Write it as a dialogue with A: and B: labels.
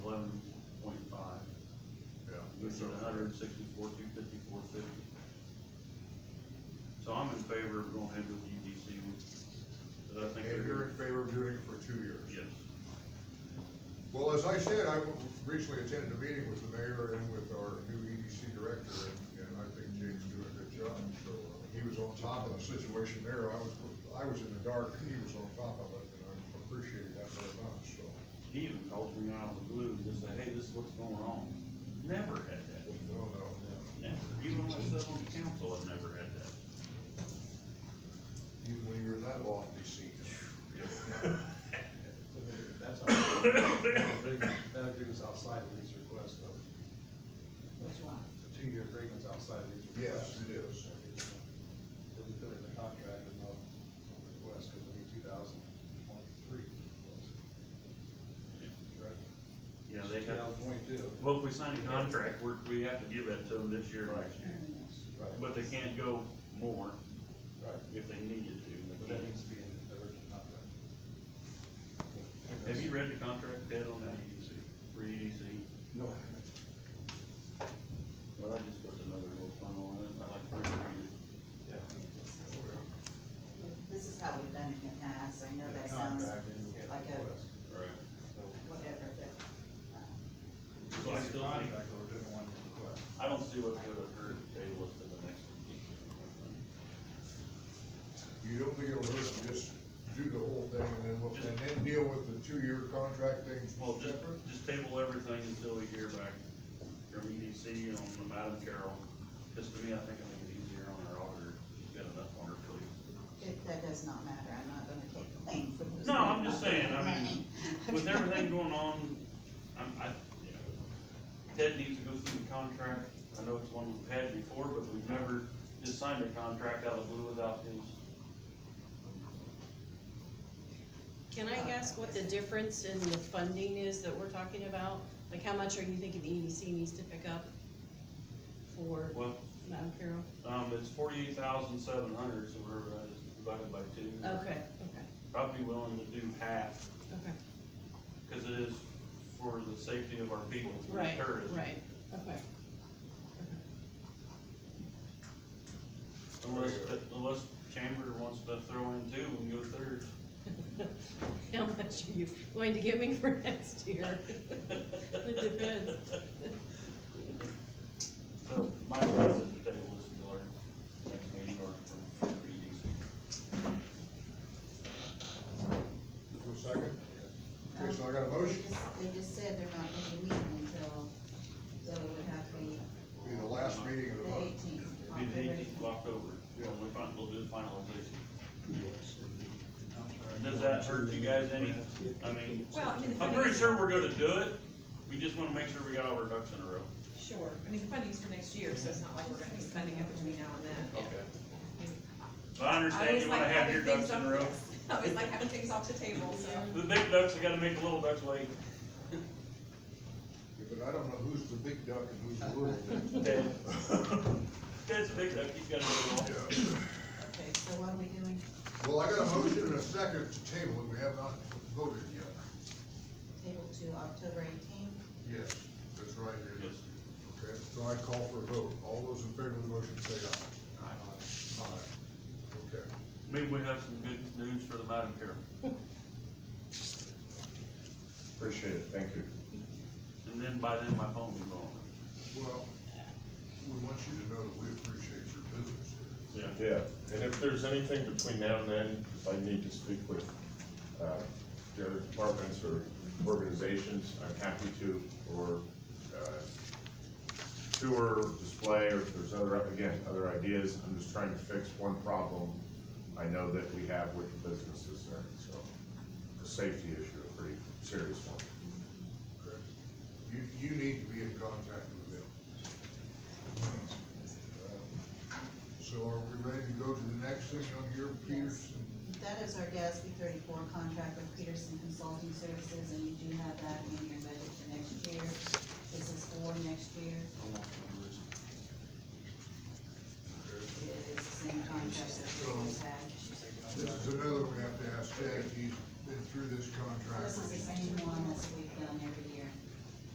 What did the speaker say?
A: which is hundred and sixty-four, two fifty-four, fifty. So I'm in favor of going ahead with E EDC, because I think
B: And
A: they're,
B: you're in favor of doing it for two years?
A: yes,
B: Well, as I said, I recently attended a meeting with the mayor and with our new EDC director, and, and I think Jake's doing a good job, so uh, he was on top of the situation there, I was, I was in the dark, he was on top of it, and I appreciated that very much, so.
A: he even calls me out of the blue and just say, hey, this is what's going on. Never had that,
B: No, no,
A: never, even when I sat on the council, I've never had that.
B: even when you're in that lofty seat.
C: That's our, that agreement's outside of these requests, though. The two-year agreement's outside of these
B: Yes,
C: requests.
B: it is.
C: Did we put it in the contract and not the request, because we need two thousand twenty-three. Correct?
A: Yeah, they
C: Two
A: have,
C: thousand twenty-two.
A: well, if we sign a contract, we're, we have to give that to them this year, or next year.
C: Right,
A: But they can't go more
C: right.
A: if they needed to.
C: But
A: They
C: that
A: can't.
C: needs to be in the original contract.
A: Have you read the contract, Ted, on that E EDC, for EDC?
C: No.
A: Well, I just put another little funnel on it, I like E to read it.
C: Yeah.
D: This is how we've done it in the past, I know that sounds
C: Contract and get
D: like a-
C: request.
A: Right.
C: So-
D: whatever, but, uh,
A: So I still think,
C: Contract, we're doing one request.
A: I don't see what could have hurt if they was to the next one.
B: You don't think it'll hurt to just do the whole thing and then, look- and then deal with the two-year contract things
A: Well, just,
B: separate?
A: just table everything until we hear back from EDC on the Madam Carroll. Just to me, I think it'll make it easier on our auditor, she's got enough on her plate.
D: it, that does not matter, I'm not gonna take blame for this.
A: No, I'm just saying, I mean, with everything going on, I'm, I, you know, Ted needs to go through the contract. I know it's one we've had before, but we've never just signed a contract out of the blue without his
E: Can I ask what the difference in the funding is that we're talking about? Like, how much are you thinking the EDC needs to pick up for
A: Well,
E: Mount Carroll?
A: um, it's forty-eight thousand seven hundred, so we're, uh, just divided by two.
E: Okay, okay,
A: Probably willing to do half,
E: okay,
A: cause it is for the safety of our people, for the
E: right,
A: terrorists.
E: right, okay.
A: Unless, unless Chamber wants to throw in two and go third.
E: How much are you going to give me for next year? It depends.
A: So, my advice is to table this until our next meeting or from EDC.
B: For a second? Okay, so I got a
D: They
B: motion,
D: just- They just said they're not gonna be meeting until, so it would have to be
B: be the last meeting of the
D: the
B: month.
D: eighteenth.
A: It'll be the eighteenth of October, when we fin- we'll do the finalization. Does that hurt you guys any? I mean,
F: Well, I mean, the
A: I'm
F: funding
A: pretty
F: is-
A: sure we're gonna do it, we just wanna make sure we got all our ducks in a row.
F: Sure, I mean, the funding's for next year, so it's not like we're gonna be spending it between now and then.
A: Okay.
F: I mean,
A: But I
F: I
A: understand
F: always
A: you wanna
F: like
A: have your
F: having
A: ducks
F: things
A: in a
F: off-
A: row.
F: I always like having things off the table, so.
A: The big ducks, we gotta make the little ducks wait.
B: Yeah, But I don't know who's the big duck and who's the little duck.
A: Ted. Ted's a big duck, he's gotta do it all.
B: Yeah.
D: Okay, so what are we doing?
B: Well, I got a motion and a second to table, and we have not voted yet.
D: Table to October eighteenth?
B: Yes, that's right, it
A: Yes.
B: is. Okay, so I call for a vote. All those in favor of the motion say aye. Aye. Okay.
A: Maybe we have some good news for the Madam Chair.
G: Appreciate it, thank you.
A: And then by then, my phone will be gone.
B: Well, we want you to know that we appreciate your business here.
A: Yeah.
G: Yeah, and if there's anything between now and then, if I need to speak with, uh, the other departments or organizations, I'm happy to, or, uh, tour, display, or if there's other, again, other ideas, I'm just trying to fix one problem I know that we have with the businesses there, so, a safety issue, a pretty serious one.
B: Okay. You, you need to be in contact with them. So are we ready to go to the next thing on here, Peterson?
D: That is our GASB thirty-four contract with Peterson Consulting Services, and you do have that in your budget for next